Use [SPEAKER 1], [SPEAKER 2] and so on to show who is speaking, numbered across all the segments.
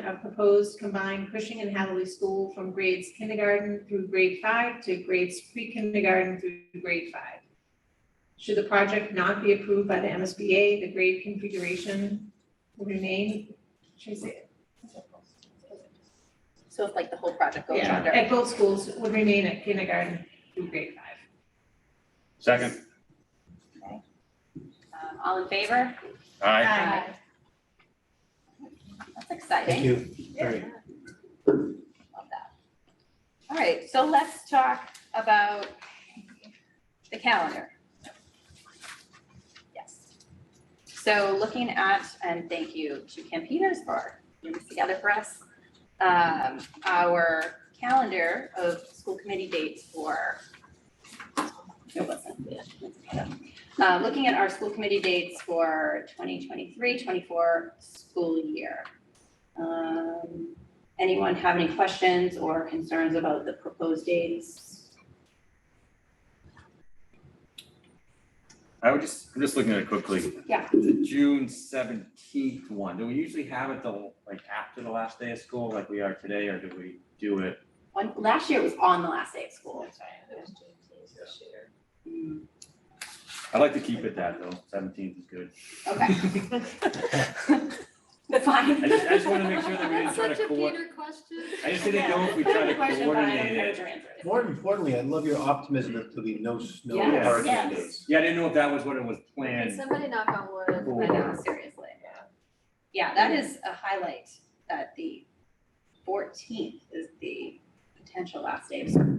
[SPEAKER 1] of proposed combined Cushing and Hathaway School from grades kindergarten through grade five to grades pre-kindergarten through grade five. Should the project not be approved by the MSBA, the grade configuration will remain, should I say it?
[SPEAKER 2] So if like the whole project goes
[SPEAKER 1] Yeah,
[SPEAKER 2] under,
[SPEAKER 1] at both schools would remain at kindergarten through grade five.
[SPEAKER 3] Second,
[SPEAKER 2] um, all in favor?
[SPEAKER 3] aye.
[SPEAKER 2] Aye. That's exciting.
[SPEAKER 4] Thank you. Very
[SPEAKER 2] Love that. All right, so let's talk about the calendar. Yes. So looking at, and thank you to Kim Peters for putting this together for us, um, our calendar of school committee dates for. It wasn't, yeah, let's put it up. Uh, looking at our school committee dates for 2023-24 school year. Um, Anyone have any questions or concerns about the proposed dates?
[SPEAKER 3] I would just, I'm just looking at it quickly.
[SPEAKER 2] Yeah.
[SPEAKER 3] The June seventeenth one, do we usually have it the, like, after the last day of school, like we are today, or do we do it?
[SPEAKER 2] One, last year was on the last day of school. Mm,
[SPEAKER 3] I'd like to keep it that, though, seventeenth is good.
[SPEAKER 2] Okay, fine.
[SPEAKER 3] I just, I just wanna make sure that we didn't
[SPEAKER 5] That's
[SPEAKER 3] try
[SPEAKER 5] such
[SPEAKER 3] to
[SPEAKER 5] a
[SPEAKER 3] coordinate,
[SPEAKER 5] Peter question.
[SPEAKER 3] I just didn't know if we tried to
[SPEAKER 2] Question, but I don't
[SPEAKER 3] coordinate
[SPEAKER 2] know
[SPEAKER 3] it.
[SPEAKER 2] your answer.
[SPEAKER 4] More importantly, I love your optimism that there'll be no snow
[SPEAKER 2] Yes,
[SPEAKER 4] or hurricane
[SPEAKER 2] yes.
[SPEAKER 4] days.
[SPEAKER 3] Yeah, I didn't know if that was what it was
[SPEAKER 5] Can
[SPEAKER 3] planned.
[SPEAKER 5] Somebody knock on wood.
[SPEAKER 2] I know, seriously. Yeah, that is a highlight, that the fourteenth is the potential last day of school.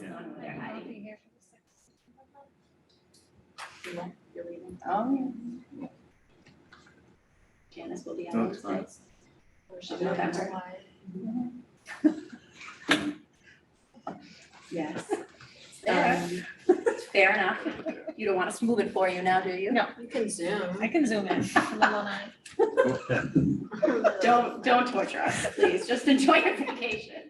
[SPEAKER 3] Yeah.
[SPEAKER 2] One of their
[SPEAKER 1] I'll
[SPEAKER 2] hiding.
[SPEAKER 1] be here for the sixth.
[SPEAKER 2] Oh. yeah. Janice will be on
[SPEAKER 3] That's
[SPEAKER 2] those
[SPEAKER 3] fine.
[SPEAKER 2] dates. November. Yes. Um, Fair enough. You don't want us to move it for you now, do you?
[SPEAKER 1] No.
[SPEAKER 5] You can zoom.
[SPEAKER 1] I can zoom in, I'm alone.
[SPEAKER 2] Don't, don't torture us, please. Just enjoy your vacation.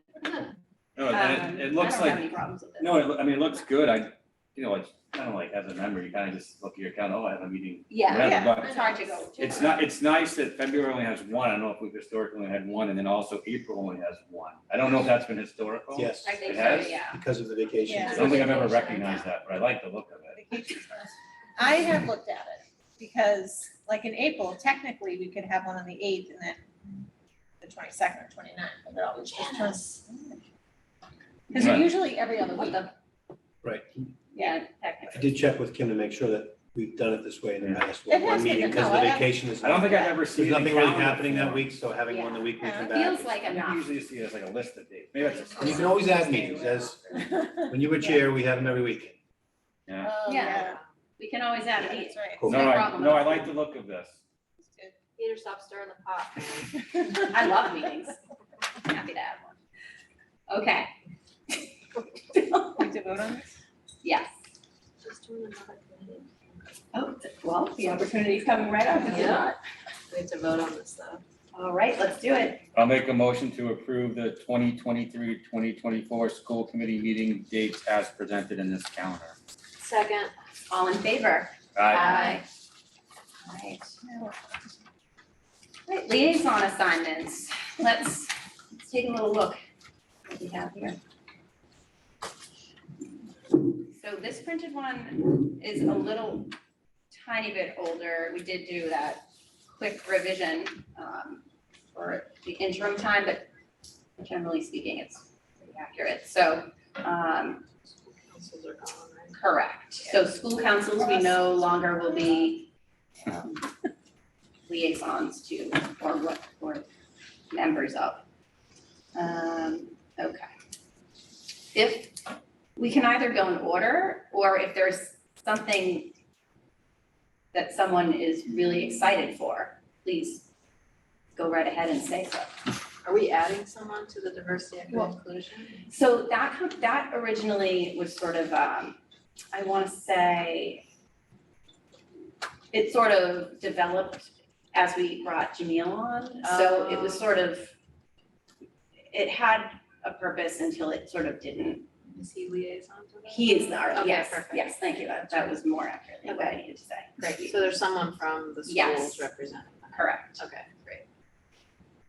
[SPEAKER 3] No, and
[SPEAKER 2] Um,
[SPEAKER 3] it, it looks
[SPEAKER 2] I don't have
[SPEAKER 3] like,
[SPEAKER 2] any problems with it.
[SPEAKER 3] no, it loo- I mean, it looks good, I, you know, it's kind of like, as a member, you kind of just look at your account, oh, I have a meeting.
[SPEAKER 2] Yeah,
[SPEAKER 3] whatever, but
[SPEAKER 2] it's hard to go.
[SPEAKER 3] It's not, it's nice that February only has one, I don't know if we've historically only had one, and then also April only has one. I don't know if that's been historical.
[SPEAKER 4] Yes,
[SPEAKER 2] I think
[SPEAKER 3] It
[SPEAKER 2] so,
[SPEAKER 3] has?
[SPEAKER 2] yeah.
[SPEAKER 4] because of the vacation.
[SPEAKER 1] Yeah.
[SPEAKER 3] I don't think I've ever recognized that, but I like the look of it.
[SPEAKER 1] I have looked at it, because like in April, technically, we could have one on the eighth and then the twenty-second or twenty-ninth, but they're always just us. Because they're
[SPEAKER 3] Right.
[SPEAKER 1] usually every other
[SPEAKER 2] What
[SPEAKER 1] week.
[SPEAKER 2] the,
[SPEAKER 4] Right.
[SPEAKER 2] yeah,
[SPEAKER 4] I
[SPEAKER 2] technically.
[SPEAKER 4] did check with Kim to make sure that we've done it this way in the
[SPEAKER 3] Yeah.
[SPEAKER 4] past, with
[SPEAKER 1] It
[SPEAKER 4] one
[SPEAKER 1] has been
[SPEAKER 4] meeting,
[SPEAKER 1] done.
[SPEAKER 4] because
[SPEAKER 1] No,
[SPEAKER 4] the
[SPEAKER 1] I-
[SPEAKER 4] vacation is,
[SPEAKER 3] I don't
[SPEAKER 4] there's
[SPEAKER 3] think I've ever seen.
[SPEAKER 4] nothing
[SPEAKER 3] anything
[SPEAKER 4] really
[SPEAKER 3] on it
[SPEAKER 4] happening that
[SPEAKER 3] before.
[SPEAKER 4] week, so having one the week we
[SPEAKER 1] Yeah.
[SPEAKER 4] come
[SPEAKER 2] It
[SPEAKER 4] back.
[SPEAKER 2] Feels like
[SPEAKER 3] I think you
[SPEAKER 2] enough.
[SPEAKER 3] usually see it as like a list of dates, maybe that's.
[SPEAKER 4] And you can always add meetings, as, when you were chair, we have them every week.
[SPEAKER 3] Yeah.
[SPEAKER 1] Oh,
[SPEAKER 2] Yeah, we can always add
[SPEAKER 1] Yeah,
[SPEAKER 2] a meeting.
[SPEAKER 1] That's right.
[SPEAKER 4] Cool.
[SPEAKER 3] No,
[SPEAKER 2] No
[SPEAKER 3] I,
[SPEAKER 2] problem.
[SPEAKER 3] no, I like the look of this.
[SPEAKER 5] Peter, stop stirring the pot.
[SPEAKER 2] I love meetings. Happy to have one. Okay,
[SPEAKER 1] Need to vote on this?
[SPEAKER 2] yes.
[SPEAKER 5] Just doing another meeting.
[SPEAKER 2] Oh, well, the opportunity's coming right up, is it
[SPEAKER 5] Yeah.
[SPEAKER 2] not?
[SPEAKER 5] We have to vote on this though.
[SPEAKER 2] All right, let's do it.
[SPEAKER 3] I'll make a motion to approve the 2023-2024 school committee meeting dates as presented in this calendar.
[SPEAKER 5] Second,
[SPEAKER 2] All in favor?
[SPEAKER 3] Aye.
[SPEAKER 2] All right. All right, liaison assignments. Let's, let's take a little look what we have here. So this printed one is a little tiny bit older. We did do that quick revision um, for the interim time, but generally speaking, it's pretty accurate. So um,
[SPEAKER 5] councils are gone, right?
[SPEAKER 2] Correct. So school councils, we no longer will be um, liaisons to, or what, or members of. Um, okay. If, we can either go in order, or if there's something that someone is really excited for, please go right ahead and say so.
[SPEAKER 5] Are we adding someone to the diversity and
[SPEAKER 2] Well-
[SPEAKER 5] inclusion?
[SPEAKER 2] So that, com- that originally was sort of, um, I wanna say, it sort of developed as we brought Jamil on, so it was
[SPEAKER 5] Oh.
[SPEAKER 2] sort of, it had a purpose until it sort of didn't.
[SPEAKER 5] Is he liaison to that?
[SPEAKER 2] He is our,
[SPEAKER 5] Okay,
[SPEAKER 2] yes,
[SPEAKER 5] perfect.
[SPEAKER 2] yes, thank you, that, that was more accurately what I needed to say.
[SPEAKER 5] Great, so there's someone from the
[SPEAKER 2] Yes.
[SPEAKER 5] schools representing that.
[SPEAKER 2] Correct.
[SPEAKER 5] Okay.